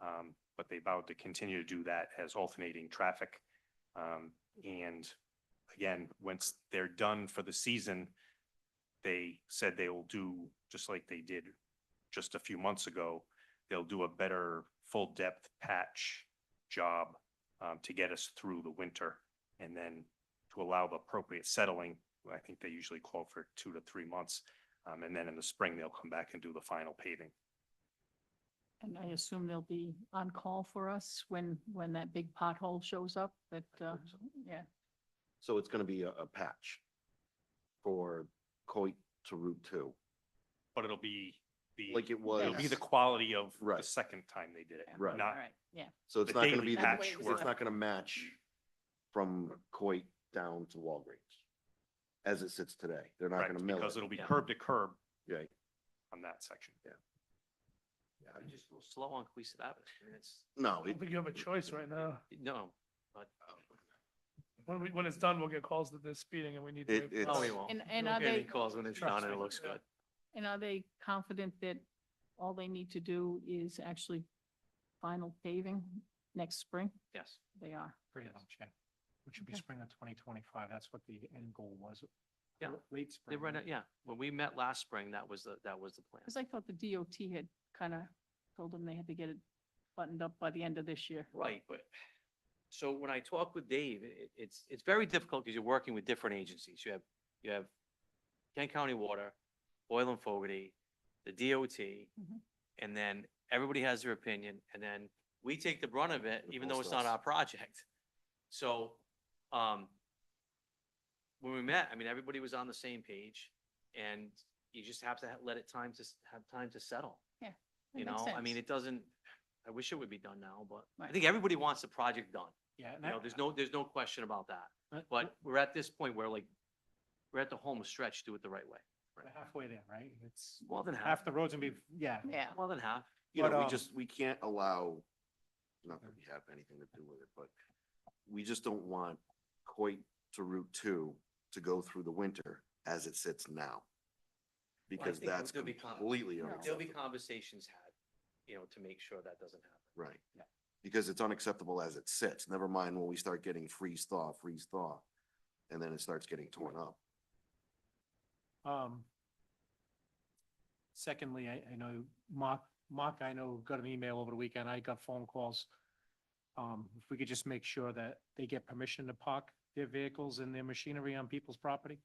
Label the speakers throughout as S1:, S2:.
S1: Um, but they vowed to continue to do that as alternating traffic. Um, and again, once they're done for the season, they said they will do, just like they did just a few months ago, they'll do a better full depth patch job um, to get us through the winter. And then to allow the appropriate settling, I think they usually call for two to three months. Um, and then in the spring, they'll come back and do the final paving.
S2: And I assume they'll be on call for us when, when that big pothole shows up, that, uh, yeah.
S3: So it's gonna be a, a patch for Coit to Route Two,
S1: But it'll be the,
S3: like it was.
S1: it'll be the quality of the
S3: Right.
S1: second time they did it.
S3: Right.
S2: All
S1: Not,
S2: right, yeah.
S3: So it's
S1: the
S3: not gonna
S1: daily
S3: be, the-
S1: patch
S3: it's
S2: work.
S3: not gonna match from Coit down to Walgreens as it sits today. They're not
S1: correct,
S3: gonna mill
S1: because
S3: it.
S1: it'll be
S4: Yeah.
S1: curb to curb
S3: Right.
S1: on that section.
S3: Yeah.
S4: I'm just a little slow on Queesadava. I mean, it's,
S3: No,
S5: I don't
S3: it-
S5: think you have a choice right now.
S4: no, but,
S5: When we, when it's done, we'll get calls that they're speeding and we need to.
S3: It-
S5: make
S3: it's-
S4: no,
S6: Oh,
S4: we
S5: plans.
S4: Oh, won't.
S2: And, and
S5: You'll
S2: are
S5: get
S4: Any
S2: they,
S4: calls when it's done and it looks good.
S2: and are they confident that all they need to do is actually final paving next spring?
S4: Yes.
S2: They are.
S6: Pretty much, yeah. Which would be
S2: Okay.
S6: spring of twenty twenty-five, that's what the end goal was.
S4: Yeah.
S6: L- Late
S4: They
S6: spring.
S4: run it, yeah. When we met last spring, that was the, that was the plan.
S2: Because I thought the DOT had kind of told them they had to get it buttoned up by the end of this year.
S4: Right, but, so when I talk with Dave, it, it's, it's very difficult because you're working with different agencies. You have, you have Kent County Water, Boyle and Fogarty, the DOT,
S2: Mhm.
S4: and then everybody has their opinion, and then we take the brunt of it,
S3: And the
S4: even though
S3: post
S4: it's not
S3: office.
S4: our project. So, um, when we met, I mean, everybody was on the same page, and you just have to ha- let it time to, s- have time to settle.
S2: That
S4: You
S2: makes
S4: know, I mean,
S2: sense.
S4: it doesn't, I wish it would be done now, but I
S2: Right.
S4: think everybody wants the project done.
S6: Yeah. and
S4: You know,
S6: I-
S4: there's no, there's no question about that.
S2: Uh,
S6: I-
S4: But we're at this point where like, we're at the home stretch, do it the right way.
S6: we're Halfway there, right? It's
S4: More than half,
S6: half the roads and be, yeah.
S2: Yeah.
S4: more than half.
S3: you
S6: But,
S3: know, we
S6: um,
S3: just, we can't allow, not that we have anything to do with it, but we just don't want Coit to Route Two to go through the winter as it sits now. Because
S4: think
S3: that's
S4: there'll be con-
S3: completely
S2: there'll be
S4: There'll be
S3: unacceptable,
S4: conversations had, you know, to make sure that doesn't happen.
S3: right?
S6: Yeah.
S3: Because it's unacceptable as it sits, never mind when we start getting freeze thaw, freeze thaw, and then it starts getting torn up.
S6: Um. Secondly, I, I know Mark, Mark, I know got an email over the weekend. I got phone calls. Um, if we could just make sure that they get permission to park their vehicles and their machinery on people's property,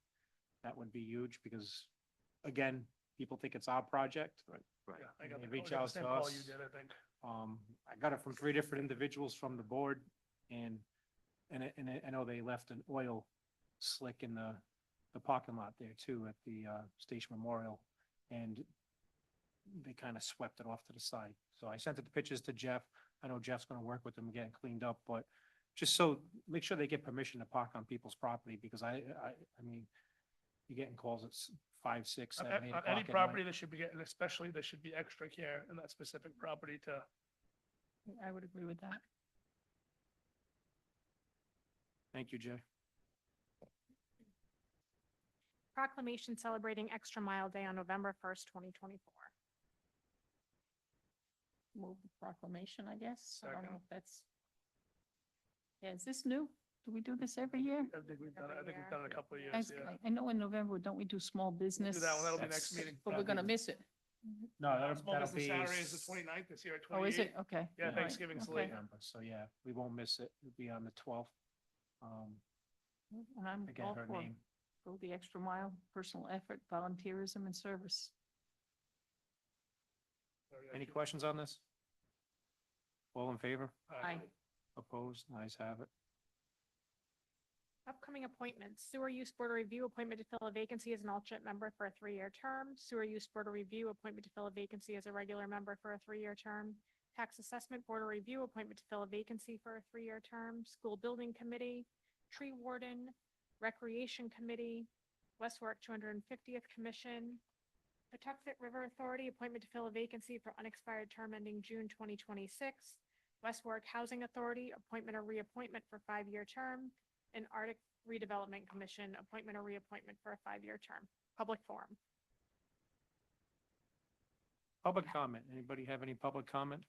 S6: that would be huge because, again, people think it's our project. Right.
S5: Yeah,
S4: Right.
S5: I got
S6: They
S5: the- oh,
S6: reach
S5: I got the
S6: out
S5: same
S6: to
S5: call
S6: us.
S5: you did, I think.
S6: Um, I got it from three different individuals from the board and, and I, and I- I know they left an oil slick in the, the parking lot there too at the, uh, Station Memorial. And they kind of swept it off to the side. So I sent the pictures to Jeff. I know Jeff's going to work with them getting cleaned up, but just so, make sure they get permission to park on people's property because I, I, I mean, you're getting calls at s- five, six,
S5: On
S6: seven, eight
S5: a-
S6: o'clock
S5: on any
S6: at night.
S5: property, there should be, getting, especially there should be extra care in that specific property to,
S2: I would agree with that.
S6: Thank you, Jeff.
S7: Proclamation celebrating Extra Mile Day on November first, twenty twenty-four.
S2: Move the proclamation, I guess. I don't
S5: Second.
S2: know if that's. Yeah, is this new? Do we do this every year?
S5: I think we've done, it- I think we've
S7: Everywhere.
S5: done it a couple of
S2: I
S5: years,
S2: s-
S5: yeah.
S2: I know in November, don't we do small business?
S5: Do that one, that'll be
S6: That's-
S5: next meeting.
S2: But we're gonna miss it.
S6: No, that'll,
S5: Small
S6: that'll
S5: business
S6: be.
S5: Saturday is the 29th this year,
S2: Oh, is it?
S5: 28th.
S2: Okay.
S5: Yeah,
S2: All right,
S5: Thanksgiving's
S2: okay.
S5: later.
S6: November, So yeah, we won't miss it. It'll be on the twelfth. Um,
S2: And I'm
S6: again,
S2: all
S6: her
S2: for
S6: name.
S2: go the extra mile, personal effort, volunteerism and service.
S5: Sorry, I
S6: Any
S5: should-
S6: questions on this? All in favor?
S5: Aye.
S2: Aye.
S6: Opposed? Nice have it.
S7: Upcoming appointments, Sewer Use Board of Review appointment to fill a vacancy as an alternate member for a three-year term. Sewer Use Board of Review appointment to fill a vacancy as a regular member for a three-year term. Tax Assessment Board of Review appointment to fill a vacancy for a three-year term. School Building Committee, Tree Warden, Recreation Committee, West Warwick two hundred and fiftieth Commission, Patuxent River Authority appointment to fill a vacancy for unexpired term ending June twenty twenty-six. West Warwick Housing Authority appointment or reappointment for five-year term an Arctic Redevelopment Commission appointment or reappointment for a five-year term. Public forum.
S6: Public comment. Anybody have any public comment?